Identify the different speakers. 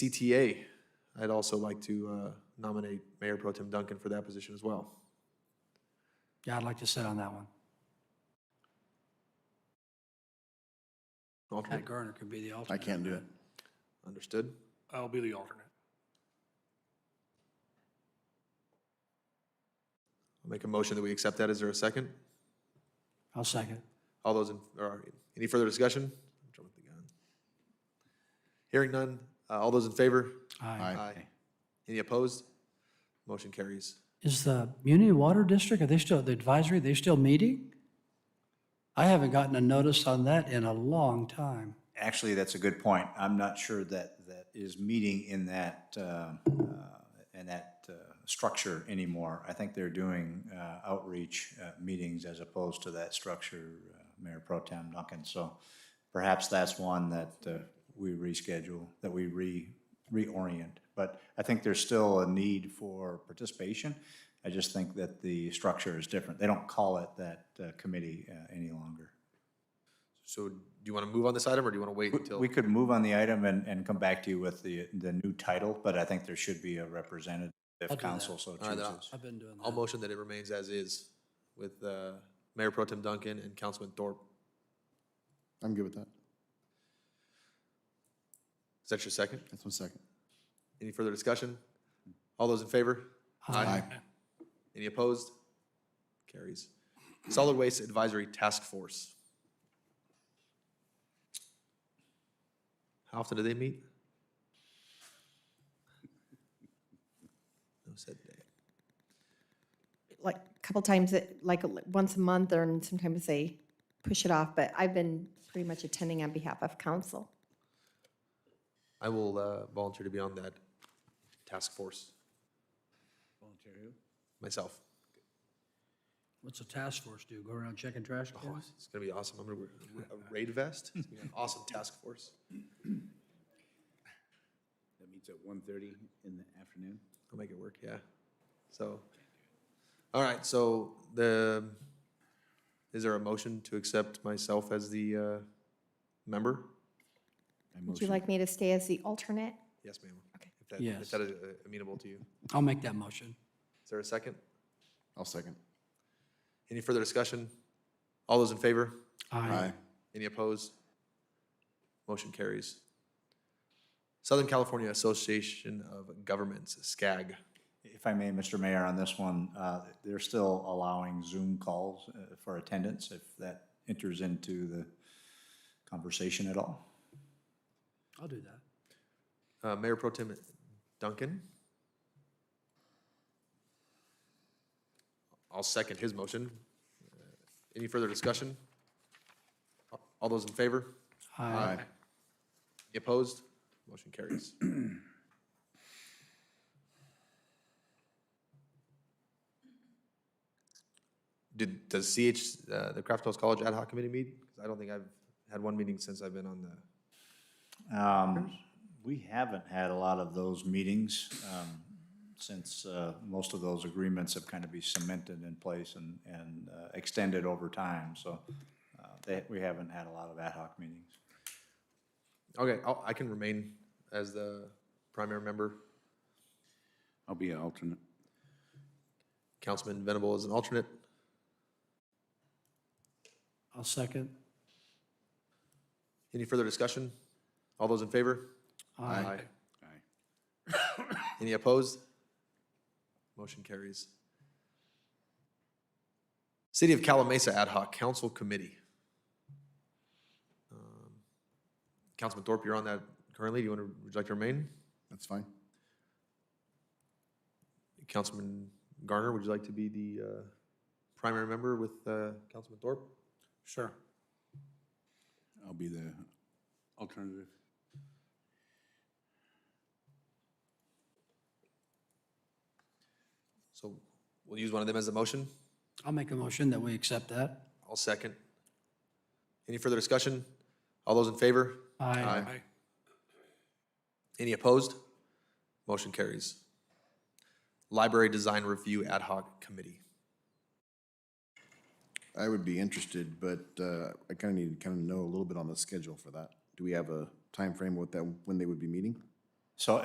Speaker 1: DTA, I'd also like to uh, nominate Mayor Pro Tem Duncan for that position as well.
Speaker 2: Yeah, I'd like to sit on that one. Pat
Speaker 1: Alternate,
Speaker 2: Garner could be the
Speaker 3: I
Speaker 2: alternate.
Speaker 3: can't do it.
Speaker 1: understood.
Speaker 4: I'll be the alternate.
Speaker 1: I'll make a motion that we accept that. Is there a second?
Speaker 2: I'll second.
Speaker 1: All those, in or any further discussion? I'm jumping the gun. Hearing none. Uh, All those in favor?
Speaker 2: Aye.
Speaker 1: Any opposed? Motion carries.
Speaker 2: Is the Muni Water District, are they still, the advisory, they still meeting? I haven't gotten a notice on that in a long time.
Speaker 5: Actually, that's a good point. I'm not sure that that is meeting in that, uh, uh, in that uh, structure anymore. I think they're doing uh, outreach uh, meetings as opposed to that structure, uh, Mayor Pro Tem Duncan. So perhaps that's one that uh, we reschedule, that we re, reorient. But I think there's still a need for participation. I just think that the structure is different. They don't call it that uh, committee uh, any longer.
Speaker 1: So do you want to move on this item or do you want to wait until?
Speaker 5: We could move on the item and, and come back to you with the, the new title, but I think there should be a representative if council so
Speaker 1: right, then I'll-
Speaker 5: chooses.
Speaker 2: I've been doing
Speaker 1: I'll
Speaker 2: that.
Speaker 1: motion that it remains as is with uh, Mayor Pro Tem Duncan and Councilman Thorpe.
Speaker 3: I'm good with that.
Speaker 1: Is that your second?
Speaker 3: That's one second.
Speaker 1: Any further discussion? All those in favor?
Speaker 3: Aye.
Speaker 1: Any opposed? Carries. Solid Waste Advisory Task Force. How often do they meet? No said day.
Speaker 6: like a couple times, a- like a li- once a month, or and sometimes they push it off, but I've been pretty much attending on behalf of council.
Speaker 1: I will uh, volunteer to be on that task force. Volunteer who? Myself.
Speaker 2: What's the task force do? Go around checking trash
Speaker 1: Oh,
Speaker 2: cans?
Speaker 1: It's gonna be awesome. I'm gonna wear a raid vest. It's gonna be an awesome task force.
Speaker 7: That meets at 1:30 in the afternoon.
Speaker 1: I'll make it work, yeah. So, all right, so the, is there a motion to accept myself as the uh, member?
Speaker 6: Would you like me to stay as the alternate?
Speaker 1: Yes, ma'am. Okay. If
Speaker 2: Yes.
Speaker 1: that is uh, amenable to you.
Speaker 2: I'll make that motion.
Speaker 1: Is there a second?
Speaker 3: I'll second.
Speaker 1: Any further discussion? All those in favor?
Speaker 3: Aye.
Speaker 1: Any opposed? Motion carries. Southern California Association of Governments, SCAG.
Speaker 5: If I may, Mr. Mayor, on this one, uh, they're still allowing Zoom calls uh, for attendance if that enters into the conversation at all.
Speaker 2: I'll do that.
Speaker 1: Uh, Mayor Pro Tem Duncan? I'll second his motion. Uh, Any further discussion? All those in favor?
Speaker 2: Aye.
Speaker 1: Any Opposed? Motion carries. Did, does CH, uh, the Craft House College Ad Hoc Committee meet? Because I don't think I've had one meeting since I've been on the.
Speaker 5: Um, We haven't had a lot of those meetings um, since uh, most of those agreements have kind of been cemented in place and, and uh, extended over time. So uh, they- we haven't had a lot of ad hoc meetings.
Speaker 1: Okay, I'll, I can remain as the primary member.
Speaker 7: I'll be an alternate.
Speaker 1: Councilman Venable is an alternate.
Speaker 2: I'll second.
Speaker 1: Any further discussion? All those in favor? Aye.
Speaker 7: Aye.
Speaker 1: Any opposed? Motion carries. City of Calamasa Ad Hoc Council Committee. Um, Councilman Thorpe, you're on that currently. Do you want to, would you like to remain?
Speaker 3: That's fine.
Speaker 1: Councilman Garner, would you like to be the uh, primary member with uh, Councilman Thorpe?
Speaker 2: Sure.
Speaker 7: I'll be the alternative.
Speaker 1: So we'll use one of them as a motion.
Speaker 2: I'll make a motion that we accept that.
Speaker 1: I'll second. Any further discussion? All those in favor?
Speaker 2: Aye.
Speaker 4: Aye.
Speaker 1: Any opposed? Motion carries. Library Design Review Ad Hoc Committee.
Speaker 3: I would be interested, but uh, I kind of need to kind of know a little bit on the schedule for that. Do we have a time frame with that, when they would be meeting?
Speaker 5: So